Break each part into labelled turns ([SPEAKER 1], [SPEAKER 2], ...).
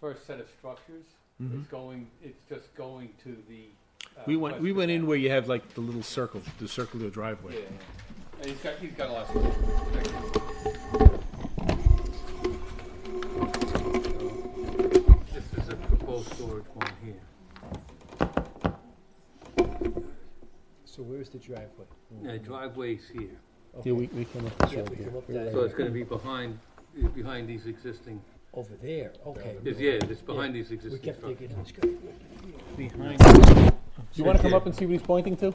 [SPEAKER 1] first set of structures. It's going, it's just going to the. uh,
[SPEAKER 2] Mm-hmm. We went, we
[SPEAKER 1] western
[SPEAKER 2] went in
[SPEAKER 1] end.
[SPEAKER 2] where you have like the little circle, the circular driveway.
[SPEAKER 1] Yeah, and he's got, he's got a lot of.
[SPEAKER 3] This is a proposed storage one here.
[SPEAKER 4] So where's the driveway?
[SPEAKER 3] Now driveway's here,
[SPEAKER 4] Okay.
[SPEAKER 2] Yeah, we, we came up with
[SPEAKER 4] Yeah,
[SPEAKER 2] that,
[SPEAKER 4] we
[SPEAKER 2] yeah.
[SPEAKER 4] come up
[SPEAKER 2] You're
[SPEAKER 4] that
[SPEAKER 2] right.
[SPEAKER 3] so it's gonna be behind, eh, behind these existing,
[SPEAKER 4] Over there, okay.
[SPEAKER 3] it's, yeah, it's behind these
[SPEAKER 4] We
[SPEAKER 3] existing
[SPEAKER 4] kept
[SPEAKER 3] structures.
[SPEAKER 4] thinking it was good.
[SPEAKER 2] Do you wanna come up and see what he's pointing to?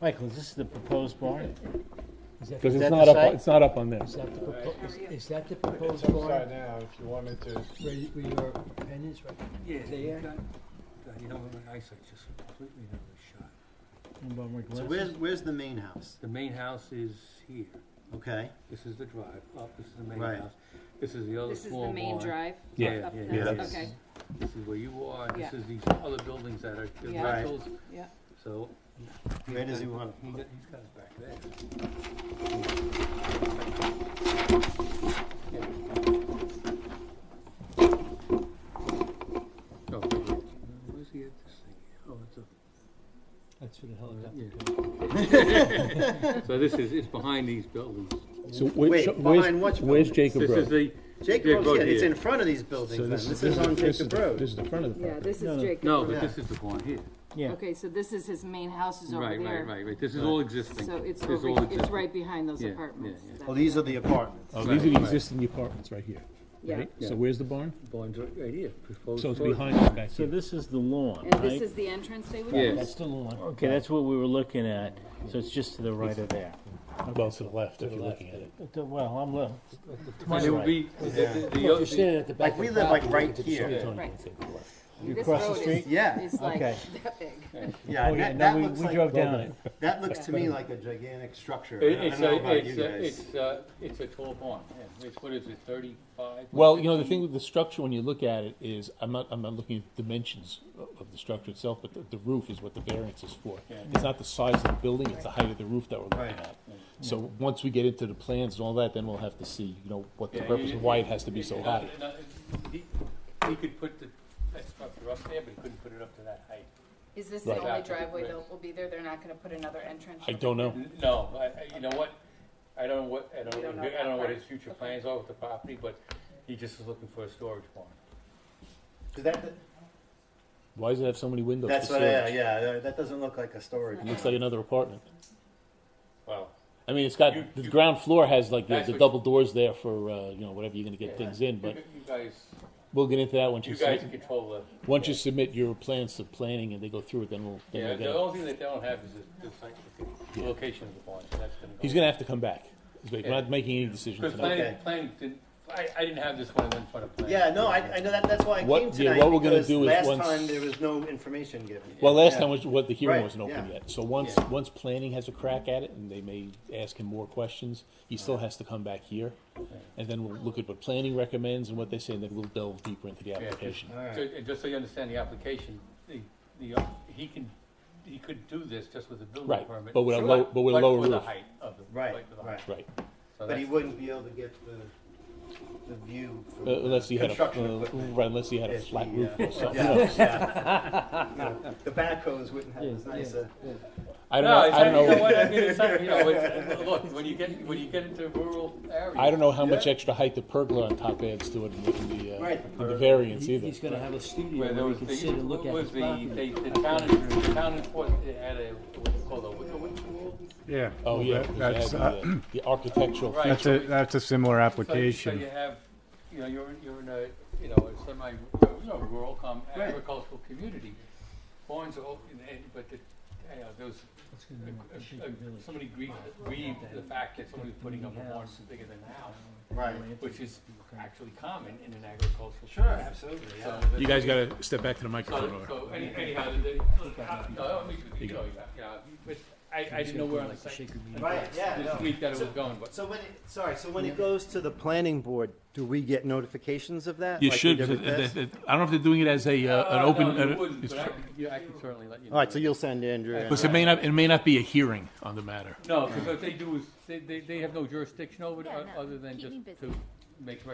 [SPEAKER 5] Michael, is this the proposed barn?
[SPEAKER 4] Is that,
[SPEAKER 2] Cause
[SPEAKER 4] is
[SPEAKER 2] it's
[SPEAKER 5] that
[SPEAKER 2] not
[SPEAKER 5] the
[SPEAKER 2] up, on-
[SPEAKER 5] site?
[SPEAKER 2] it's not up on this.
[SPEAKER 4] that the propo- is- is that the
[SPEAKER 6] It's
[SPEAKER 4] proposed
[SPEAKER 6] upside
[SPEAKER 4] barn?
[SPEAKER 6] down, if you wanted to,
[SPEAKER 4] Where, you- where your pen is right?
[SPEAKER 3] Yeah,
[SPEAKER 4] There.
[SPEAKER 3] God, God, you know, my eyesight's just completely out of shot.
[SPEAKER 7] So where's, where's the main house?
[SPEAKER 3] The main house is here,
[SPEAKER 7] Okay,
[SPEAKER 3] this is the drive up, this is the main
[SPEAKER 7] Right.
[SPEAKER 3] house, this is the other
[SPEAKER 8] This is
[SPEAKER 3] small
[SPEAKER 8] the
[SPEAKER 3] barn.
[SPEAKER 8] main drive?
[SPEAKER 2] Yeah.
[SPEAKER 8] up- up
[SPEAKER 3] Yeah,
[SPEAKER 8] there?
[SPEAKER 7] yeah.
[SPEAKER 8] Okay,
[SPEAKER 3] This is where you are, and this
[SPEAKER 8] Yeah.
[SPEAKER 3] is these other buildings that are the
[SPEAKER 8] Yeah.
[SPEAKER 7] Right.
[SPEAKER 3] rentals,
[SPEAKER 8] yeah.
[SPEAKER 3] so.
[SPEAKER 7] where does he want,
[SPEAKER 3] He got, he's got it back there. Yeah. Oh, where's he at this thing? Oh, it's up.
[SPEAKER 4] That's for the hell of it.
[SPEAKER 3] Yeah. So this is, it's behind these buildings.
[SPEAKER 2] So where-
[SPEAKER 7] Wait,
[SPEAKER 2] so where's-
[SPEAKER 7] behind which
[SPEAKER 2] Where's
[SPEAKER 7] building?
[SPEAKER 2] Jacob
[SPEAKER 3] This is
[SPEAKER 2] Road?
[SPEAKER 3] the,
[SPEAKER 7] Jacob
[SPEAKER 3] Road
[SPEAKER 7] Road's, yeah, it's
[SPEAKER 3] here.
[SPEAKER 7] in front of these buildings then, this is on
[SPEAKER 2] this is
[SPEAKER 7] Jacob
[SPEAKER 2] the-
[SPEAKER 7] Road.
[SPEAKER 2] This is the front of the
[SPEAKER 8] Yeah,
[SPEAKER 2] property.
[SPEAKER 8] this is Jacob.
[SPEAKER 3] no, but
[SPEAKER 7] Yeah.
[SPEAKER 3] this is the barn here.
[SPEAKER 8] Okay, so this is his main house is over
[SPEAKER 3] Right,
[SPEAKER 8] there.
[SPEAKER 3] right, right, right. This is all existing.
[SPEAKER 8] So it's
[SPEAKER 3] This is all
[SPEAKER 8] over, it's
[SPEAKER 3] existing.
[SPEAKER 8] right behind those
[SPEAKER 3] Yeah, yeah,
[SPEAKER 8] apartments.
[SPEAKER 3] yeah.
[SPEAKER 8] That-
[SPEAKER 7] Oh, these are the apartments.
[SPEAKER 2] Oh, these are the
[SPEAKER 3] Right.
[SPEAKER 2] existing apartments right here,
[SPEAKER 8] Yeah,
[SPEAKER 2] right?
[SPEAKER 3] Yeah.
[SPEAKER 2] So where's the barn?
[SPEAKER 3] Barn's right right here. proposed
[SPEAKER 2] So it's
[SPEAKER 3] storage.
[SPEAKER 2] behind it back
[SPEAKER 5] So
[SPEAKER 2] here.
[SPEAKER 5] this is the lawn,
[SPEAKER 8] and this
[SPEAKER 5] right?
[SPEAKER 8] is the entrance they would
[SPEAKER 3] Yes.
[SPEAKER 8] use?
[SPEAKER 4] That's the
[SPEAKER 7] Oh,
[SPEAKER 4] lawn.
[SPEAKER 5] Okay, that's what we were looking at, so it's just to the right of there.
[SPEAKER 2] Well, to the left, if
[SPEAKER 4] you're looking at
[SPEAKER 2] it.
[SPEAKER 5] But the- Well, I'm, lo-
[SPEAKER 3] And it would be, the, the- the
[SPEAKER 4] Well, if
[SPEAKER 3] other-
[SPEAKER 4] you're standing at the back
[SPEAKER 7] Like,
[SPEAKER 4] of
[SPEAKER 7] we
[SPEAKER 4] the
[SPEAKER 7] live, like,
[SPEAKER 4] property, you could
[SPEAKER 7] right
[SPEAKER 4] just
[SPEAKER 7] here.
[SPEAKER 4] show it.
[SPEAKER 8] Right.
[SPEAKER 5] you
[SPEAKER 8] This
[SPEAKER 5] across the
[SPEAKER 8] road
[SPEAKER 5] street?
[SPEAKER 8] is,
[SPEAKER 7] Yeah,
[SPEAKER 8] is like
[SPEAKER 5] okay.
[SPEAKER 8] that big.
[SPEAKER 7] yeah,
[SPEAKER 4] Oh, yeah,
[SPEAKER 7] that,
[SPEAKER 4] no,
[SPEAKER 7] that
[SPEAKER 4] we,
[SPEAKER 7] looks
[SPEAKER 4] we
[SPEAKER 7] like,
[SPEAKER 4] drove down it.
[SPEAKER 7] that looks to me like a gigantic structure, I
[SPEAKER 1] It-
[SPEAKER 7] don't
[SPEAKER 1] It's
[SPEAKER 7] know
[SPEAKER 1] a,
[SPEAKER 7] about you
[SPEAKER 1] it's a,
[SPEAKER 7] guys.
[SPEAKER 1] it's a, it's a tall barn, yeah, it's, what is it, thirty-five?
[SPEAKER 2] Well, you know, the thing with the structure, when you look at it, is, I'm not, I'm not looking at dimensions o- of the structure itself, but the, the roof is what the variance is for. It's not the size of the building, it's the height of the roof that we're looking
[SPEAKER 7] Right.
[SPEAKER 2] at. So once we get into the plans and all that, then we'll have to see, you know, what the
[SPEAKER 1] Yeah,
[SPEAKER 2] purpose,
[SPEAKER 1] you-
[SPEAKER 2] why it has to be
[SPEAKER 1] you-
[SPEAKER 2] so
[SPEAKER 1] you-
[SPEAKER 2] high.
[SPEAKER 1] no, He he could put the, that structure up there, but he couldn't put it up to that height.
[SPEAKER 8] Is this the
[SPEAKER 2] Right.
[SPEAKER 8] only driveway that will be there? They're not gonna put another entrance?
[SPEAKER 2] I
[SPEAKER 8] over
[SPEAKER 2] don't know.
[SPEAKER 1] N- No, I, I- you know what, I don't know what, I
[SPEAKER 8] You
[SPEAKER 1] don't,
[SPEAKER 8] don't
[SPEAKER 1] know-
[SPEAKER 8] know
[SPEAKER 1] I don't know what
[SPEAKER 8] that
[SPEAKER 1] his future
[SPEAKER 8] Okay.
[SPEAKER 1] plans are with the property, but he just is looking for a storage barn.
[SPEAKER 7] Is that,
[SPEAKER 2] Why does it have so many windows?
[SPEAKER 7] that's
[SPEAKER 2] for
[SPEAKER 7] what, yeah,
[SPEAKER 2] storage?
[SPEAKER 7] yeah, that- that doesn't look like a storage.
[SPEAKER 2] It looks like another apartment.
[SPEAKER 1] Well,
[SPEAKER 2] I mean, it's got,
[SPEAKER 1] You-
[SPEAKER 2] the
[SPEAKER 1] you-
[SPEAKER 2] ground floor has like the,
[SPEAKER 1] That's
[SPEAKER 2] the
[SPEAKER 1] what-
[SPEAKER 2] double doors there for, uh, you know, whatever you're gonna
[SPEAKER 1] Yeah.
[SPEAKER 2] get things in,
[SPEAKER 1] you
[SPEAKER 2] but
[SPEAKER 1] you guys,
[SPEAKER 2] we'll get into that once you
[SPEAKER 1] you guys
[SPEAKER 2] submit,
[SPEAKER 1] control the.
[SPEAKER 2] once you submit your plans to planning and they go through it, then we'll, then
[SPEAKER 1] Yeah,
[SPEAKER 2] we'll get
[SPEAKER 1] the
[SPEAKER 2] it.
[SPEAKER 1] only thing that they don't have is the- the site, loca- the location of the barn, so that's gonna go.
[SPEAKER 2] He's gonna have to come back. He's like, We're
[SPEAKER 1] Yeah.
[SPEAKER 2] not making any decisions
[SPEAKER 1] Because
[SPEAKER 2] tonight.
[SPEAKER 1] planning,
[SPEAKER 7] Okay.
[SPEAKER 1] planning didn't, I, I didn't have this one in front of planning.
[SPEAKER 7] Yeah, no, I, I know that, that's why I
[SPEAKER 2] What-
[SPEAKER 7] came
[SPEAKER 2] yeah,
[SPEAKER 7] tonight,
[SPEAKER 2] what we're gonna
[SPEAKER 7] because
[SPEAKER 2] do is
[SPEAKER 7] last
[SPEAKER 2] once-
[SPEAKER 7] time there was no information given.
[SPEAKER 2] Well, last
[SPEAKER 7] Yeah.
[SPEAKER 2] time was what the hearing
[SPEAKER 7] Right,
[SPEAKER 2] wasn't open
[SPEAKER 7] yeah.
[SPEAKER 2] yet. So once
[SPEAKER 7] Yeah.
[SPEAKER 2] once planning has a crack at it, and they may ask him more questions, he still has to come back here, and then we'll look at what planning recommends and what they say, and then we'll delve deeper into the
[SPEAKER 1] Yeah.
[SPEAKER 2] application.
[SPEAKER 1] So, and just so you understand the application, the, the, uh, he can, he could do this just with a building
[SPEAKER 2] Right,
[SPEAKER 1] permit.
[SPEAKER 2] but with a low- but with a lower
[SPEAKER 1] for the
[SPEAKER 2] roof.
[SPEAKER 1] height of the-
[SPEAKER 7] Right,
[SPEAKER 1] for the height.
[SPEAKER 7] right.
[SPEAKER 2] Right,
[SPEAKER 1] So
[SPEAKER 7] But he
[SPEAKER 1] that's-
[SPEAKER 7] wouldn't be able to get the, the view from
[SPEAKER 2] uh, unless
[SPEAKER 7] the
[SPEAKER 2] he had a
[SPEAKER 7] construction
[SPEAKER 2] uh,
[SPEAKER 7] equipment.
[SPEAKER 2] right, unless he had a
[SPEAKER 7] If
[SPEAKER 2] flat
[SPEAKER 7] he,
[SPEAKER 2] roof
[SPEAKER 7] uh,
[SPEAKER 2] or something.
[SPEAKER 7] yeah,
[SPEAKER 2] Who knows?
[SPEAKER 7] yeah. No, The backhoes wouldn't have as nice a,
[SPEAKER 2] I don't
[SPEAKER 1] No,
[SPEAKER 2] know. I
[SPEAKER 1] it's-
[SPEAKER 2] don't
[SPEAKER 1] you know
[SPEAKER 2] know.
[SPEAKER 1] what, I mean, it's not, you know, it's, look, when you get, when you get into rural areas.
[SPEAKER 2] I don't know how much extra height the pergola on top adds to it, and the, uh,
[SPEAKER 7] Right,
[SPEAKER 2] and the
[SPEAKER 7] or-
[SPEAKER 2] variance
[SPEAKER 4] He-
[SPEAKER 2] either.
[SPEAKER 4] He's gonna have a studio
[SPEAKER 1] Where there
[SPEAKER 4] where he
[SPEAKER 1] was
[SPEAKER 4] can
[SPEAKER 1] the-
[SPEAKER 4] sit and look at
[SPEAKER 1] was
[SPEAKER 4] his
[SPEAKER 1] the-
[SPEAKER 4] property.
[SPEAKER 1] they- The town, the town enforced, it had a, what's it called, a wicker wing wall?
[SPEAKER 6] yeah.
[SPEAKER 2] oh
[SPEAKER 6] well,
[SPEAKER 2] yeah,
[SPEAKER 6] that-
[SPEAKER 2] because you had
[SPEAKER 6] That's,
[SPEAKER 2] the,
[SPEAKER 6] uh,
[SPEAKER 2] uh, the architectural.
[SPEAKER 1] Right.
[SPEAKER 6] that's a, that's a similar
[SPEAKER 1] So- So
[SPEAKER 6] application.
[SPEAKER 1] you have, you know, you're, you're in a, you know, a semi, you know, rural com-
[SPEAKER 7] Right.
[SPEAKER 1] agricultural community. Barns are open, eh, but the, you know, those,
[SPEAKER 7] Mm,
[SPEAKER 1] uh, uh, somebody grieved, grieved the fact that somebody's putting up a barn bigger than a house,
[SPEAKER 7] right.
[SPEAKER 1] which is actually common in an agricultural.
[SPEAKER 7] Sure,
[SPEAKER 1] community.
[SPEAKER 7] absolutely,
[SPEAKER 1] So
[SPEAKER 7] yeah.
[SPEAKER 1] that's-
[SPEAKER 2] You guys got to step back to the microphone.
[SPEAKER 1] So, so
[SPEAKER 2] or-
[SPEAKER 1] any- anyhow, the, the, no, I mean, you know, you know, but I, I didn't know where on the site,
[SPEAKER 7] Right, yeah,
[SPEAKER 1] this
[SPEAKER 7] no.
[SPEAKER 1] week that it was going, but.
[SPEAKER 7] So when, it- sorry, so when it goes to the planning board, do we get notifications of that?
[SPEAKER 2] You
[SPEAKER 7] like we
[SPEAKER 2] should.
[SPEAKER 7] did
[SPEAKER 2] 'cause
[SPEAKER 7] with
[SPEAKER 2] it-
[SPEAKER 7] this?
[SPEAKER 2] it- it- I don't know if they're doing it as a uh, an
[SPEAKER 1] Uh,
[SPEAKER 2] open.
[SPEAKER 1] no, you
[SPEAKER 2] uh,
[SPEAKER 1] wouldn't,
[SPEAKER 2] it's-
[SPEAKER 1] but I could- yeah, I can certainly let you know.
[SPEAKER 7] All right, so you'll send Andrew. and-
[SPEAKER 2] because it may not. It may not be a hearing on the matter.
[SPEAKER 1] No, because what they do is, they, they, they have no jurisdiction over it,
[SPEAKER 8] Yeah,
[SPEAKER 1] o-
[SPEAKER 8] no,
[SPEAKER 1] other than
[SPEAKER 8] keep
[SPEAKER 1] just
[SPEAKER 8] me busy.
[SPEAKER 1] to make